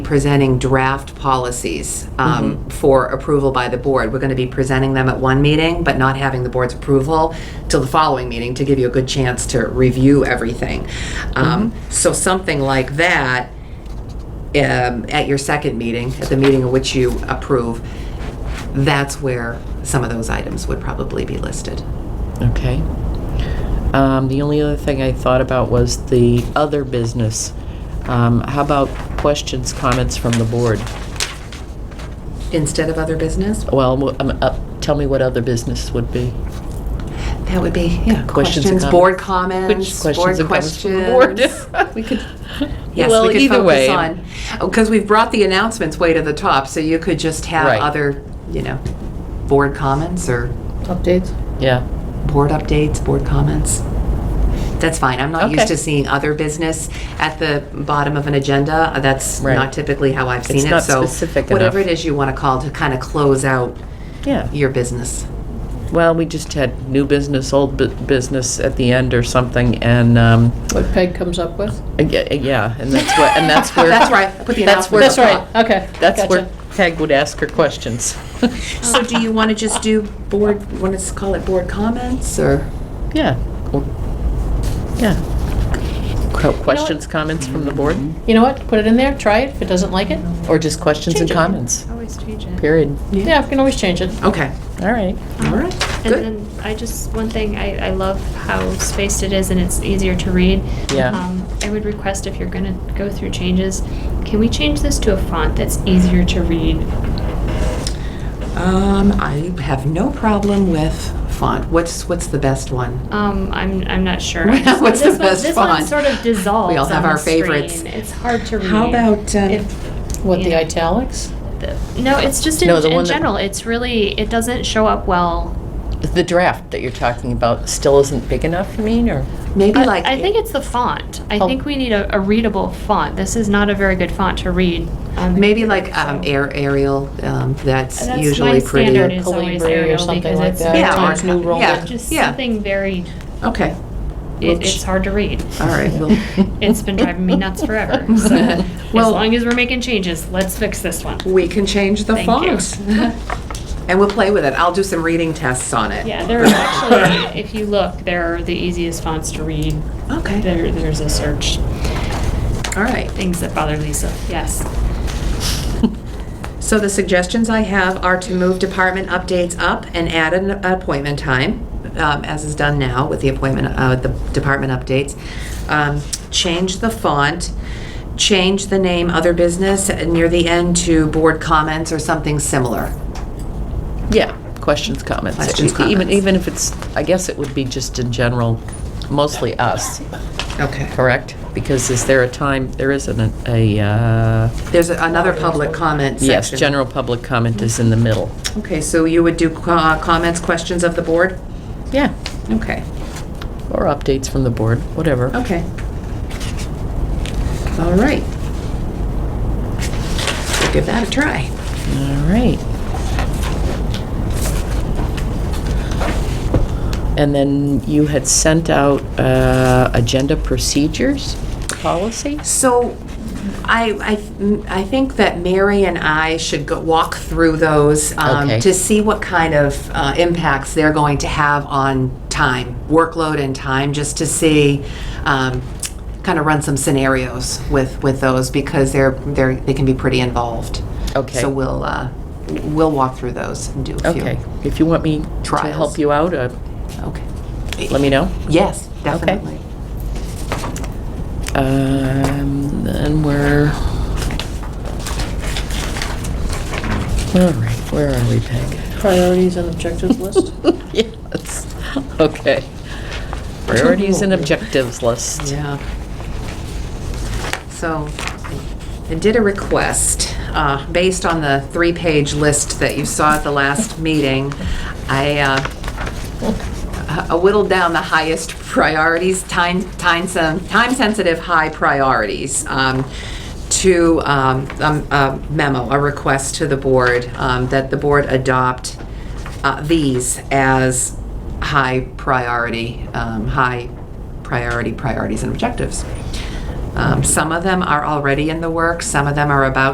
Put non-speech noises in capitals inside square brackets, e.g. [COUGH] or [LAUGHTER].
presenting draft policies um, for approval by the board. We're going to be presenting them at one meeting, but not having the board's approval till the following meeting to give you a good chance to review everything. Um, So something like that, um, at your second meeting, at the meeting in which you approve, that's where some of those items would probably be listed. Okay. Um, The only other thing I thought about was the other business. Um, How about questions, comments from the board? Instead of other business, Well, w- um, uh, tell me what other business would be. that would be, yeah, Questions and questions, board comments, Which board questions and comments from the board? questions. [LAUGHS] We could, yes, Well, we could either way. focus on, because we've brought the announcements way to the top, so you could just have Right. other, you know, board comments or Updates? Yeah. board updates, board comments. That's fine. I'm not used Okay. to seeing other business at the bottom of an agenda. Uh, That's Right. not typically how I've seen It's it. not So specific whatever it enough. is you want to call to kind of close out Yeah. your business. Well, we just had new business, old bu- business at the end or something, and, um, What Peg comes up with? uh, yeah, uh, yeah, and that's what, and [LAUGHS] that's where. That's right. Put the That's where- announcement. That's right, okay. That's where gotcha. Peg would ask her questions. [LAUGHS] So do you want to just do board? Want to call it board comments or? Yeah. Well, Yeah. Que- Questions, comments from the board? You know what, put it in there, try it, if it doesn't like it, Mm-hmm. Mm-hmm. Or just questions and Change it. comments? Always change it. Period. yeah, we can always change it. Okay. All right. All right. And Good. then I just, one thing, I, I love how spaced it is and it's easier to read. Yeah. Um, I would request if you're gonna go through changes, can we change this to a font that's easier to read? Um, I have no problem with font. What's what's the best one? Um, I'm, I'm not sure. [LAUGHS] What's the This one- best This one font? sort of dissolves We all have on our the screen. favorites. It's hard to read. How uh, about, um, If What, the Yeah. italics? the- No, it's just in, No, the one in that- general, it's really, it doesn't show up well. The draft that you're talking about still isn't big enough, you mean, or? Maybe I, like I think it's the font. I Oh. think we need a, a readable font. This is not a very good font to read. on the Maybe computer, like um, so- air aerial. Um, that's, That's usually my pretty. standard is always Calibri or Arial something because like it's that. Yeah, Times or- New Roman. yeah, Just yeah. something very, Okay. it, it's hard to read. All [LAUGHS] right. Well, [LAUGHS] It's been driving me nuts forever. [LAUGHS] So as Well- long as we're making changes, let's fix this one. we can change the Thank you. font. [LAUGHS] And we'll play with it. I'll do some reading tests on it. Yeah, there are [LAUGHS] actually, if you look, there are the easiest fonts to read. Okay. There, there's a search, All right. things that bother Lisa, yes. So the suggestions I have are to move department updates up and add an appointment time, um, as is done now with the appointment, uh, the department updates. Um, Change the font, change the name other business near the end to board comments or something similar. [LAUGHS] Yeah, questions, comments. Questions, E- Even, comments. even if it's, I guess it would be just in general, mostly us, Okay. correct? Because is there a time, there isn't a- a, uh, There's another public comment section. yes, general public comment is in the middle. Okay, so you would do co- uh, comments, questions of the board? Yeah. Okay, Or updates from the board, whatever. okay. All right. We'll Give that a try. All right. And then you had sent out uh, agenda procedures, policy? So I, I, I think that Mary and I should go walk through those um, Okay. to see what kind of uh, impacts they're going to have on time, workload and time, just to see, um, kind of run some scenarios with, with those because they're, they're, they can be pretty involved. Okay. So we'll, uh, we'll walk through those and do a few. Okay, if you want me to Trials. help you out, uh, Okay. let me know. Yes, definitely. Um, Then we're, all right, where are we, Peg? [LAUGHS] Priorities and objectives [LAUGHS] list? Yes, okay. Priorities and objectives list. Yeah. So, I did a request, uh, based on the three-page list that you saw at the last meeting. I, uh, I whittled down the highest priorities, time, time, sen- time-sensitive, high priorities, um, to, um, um, a memo, a request to the board, um, that the board adopt, uh, these as high priority, um, high priority priorities and objectives. Um, Some of them are already in the works, some of them are about